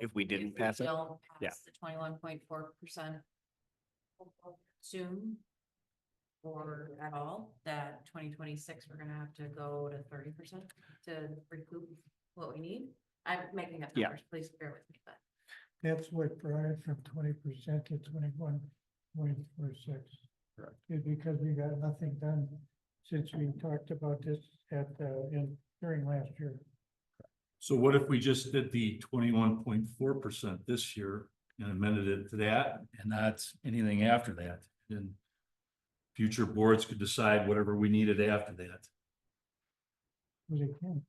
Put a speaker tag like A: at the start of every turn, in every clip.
A: If we didn't pass it?
B: Don't
A: Yeah.
B: pass the twenty-one point four percent. Soon. Or at all, that twenty twenty-six, we're gonna have to go to thirty percent to recoup what we need. I'm making up
A: Yeah.
B: numbers, please bear with me, but.
C: That's what brought it from twenty percent to twenty-one point four six.
A: Correct.
C: Is because we got nothing done since we talked about this at, uh, in, during last year.
D: So what if we just did the twenty-one point four percent this year and amended it to that and not anything after that? Then future boards could decide whatever we needed after that.
C: Was it Ken?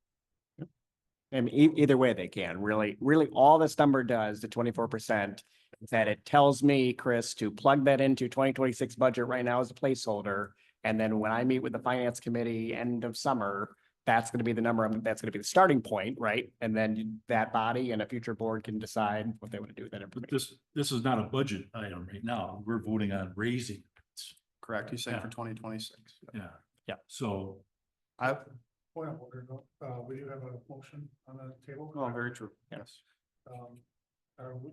A: I mean, e- either way they can, really, really, all this number does, the twenty-four percent, is that it tells me, Chris, to plug that into twenty twenty-six budget right now as a placeholder. And then when I meet with the finance committee end of summer, that's gonna be the number, I'm- that's gonna be the starting point, right? And then you- that body and a future board can decide what they want to do with that
D: But
A: information.
D: this, this is not a budget item right now. We're voting on raising.
E: Correct, he's saying for
D: Yeah.
E: twenty twenty-six.
D: Yeah.
A: Yeah.
D: So
E: I,
F: Point of order, though. uh, we do have a motion on the table.
E: oh, very true,
A: Yeah.
E: yes.
F: Um, are we?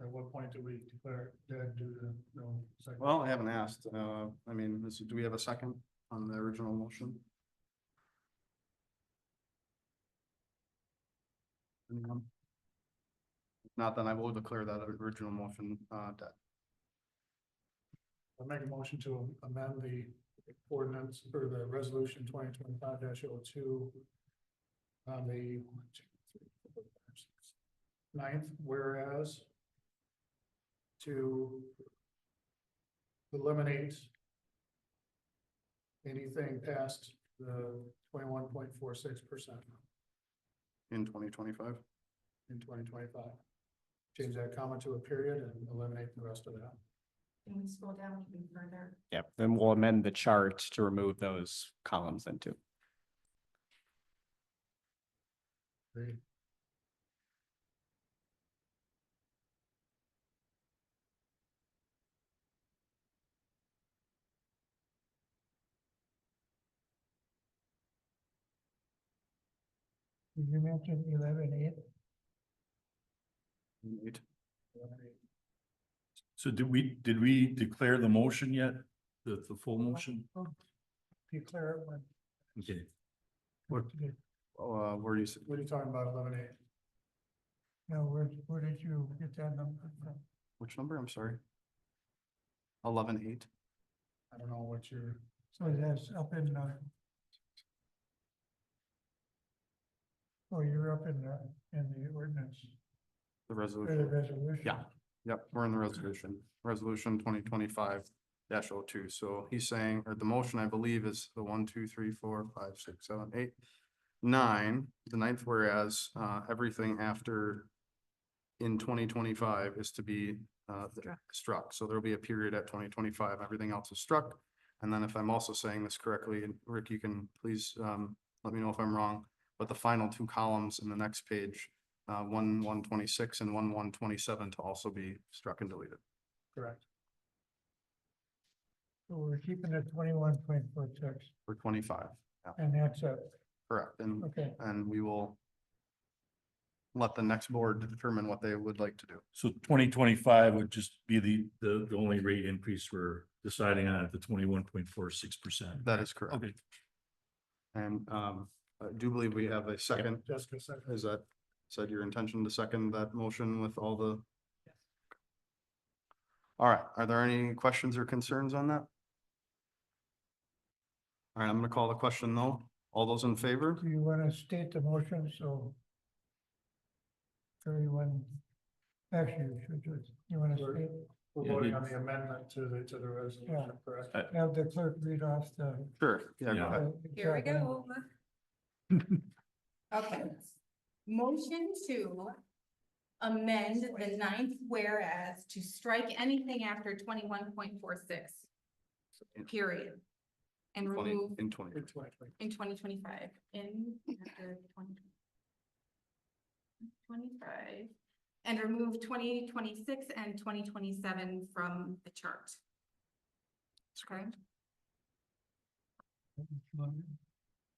F: At what point do we declare dead due to no? second?
E: Well, I haven't asked, uh, I mean, this, do we have a second on the original motion? Anyone? If Not then I will declare that original motion, uh, dead.
F: I'll make a motion to amend the ordinance or the resolution twenty twenty-five 2 On the. one, two, three, four, five, six, Ninth, whereas. To. Eliminate. Anything past the twenty-one point four six percent
E: in twenty twenty-five.
F: in twenty twenty-five. Change that comma to a period and eliminate the rest of that.
B: Can we scroll down even further?
A: Yep, then we'll amend the chart to remove those columns then too.
F: Agreed.
C: Did you mention eleven eight?
E: Eight.
D: So did we, did we declare the motion yet? The, the full motion?
C: Declare it when.
D: Okay,
E: Uh, where do you, s-
F: What are you talking about, eliminate?
C: Now, where, where did you get that number from?
E: which number? I'm sorry. Eleven eight.
F: I don't know what you're.
C: So that's up in, uh. Oh, you're up in the, in the ordinance,
E: the
C: or the
E: resolution.
C: resolution.
E: Yeah. Yep, we're in the resolution, resolution twenty twenty-five dash oh two. So he's saying, or the motion, I believe, is the one, two, three, four, five, six, seven, eight, nine, the ninth whereas, uh, everything after in twenty twenty-five is to be, uh, struck. So there'll be a period at twenty twenty-five, everything else is struck. And then if I'm also saying this correctly, and Rick, you can please, um, let me know if I'm wrong, but the final two columns in the next page uh, one, one twenty-six and one, one twenty-seven to also be struck and deleted.
F: Correct.
C: So we're keeping it twenty-one point four six,
E: For twenty-five,
C: and that's it,
E: correct, and,
C: okay.
E: and we will let the next board determine what they would like to do.
D: so twenty twenty-five would just be the, the, the only rate increase we're deciding on at the twenty-one point four six percent.
E: That is correct.
D: Okay,
E: And, um, I do believe we have a second.
F: Jessica second.
E: Is that, said your intention to second that motion with all the? All right, are there any questions or concerns on that? All right, I'm gonna call the question though. All those in favor?
C: Do you wanna state the motion, so? Everyone, actually, you should just, you wanna
F: Sure.
C: state,
F: We're
D: Yeah,
F: voting
D: he-
F: on the amendment to the, to the resolution, correct?
D: Uh,
C: have the clerk read off the.
E: Sure, yeah, go
D: Yeah.
E: ahead.
C: the
G: Here we
C: exact number.
G: go. Okay. Motion to amend the ninth whereas to strike anything after twenty-one point four six, period. And
E: Twenty,
G: remove
E: in twenty.
F: It's like- like,
G: in twenty twenty-five, in after twenty twenty-five, and remove twenty twenty-six and twenty twenty-seven from the chart. Okay?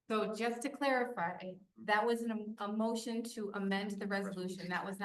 G: So just to clarify, that was an, a motion to amend the resolution. That was not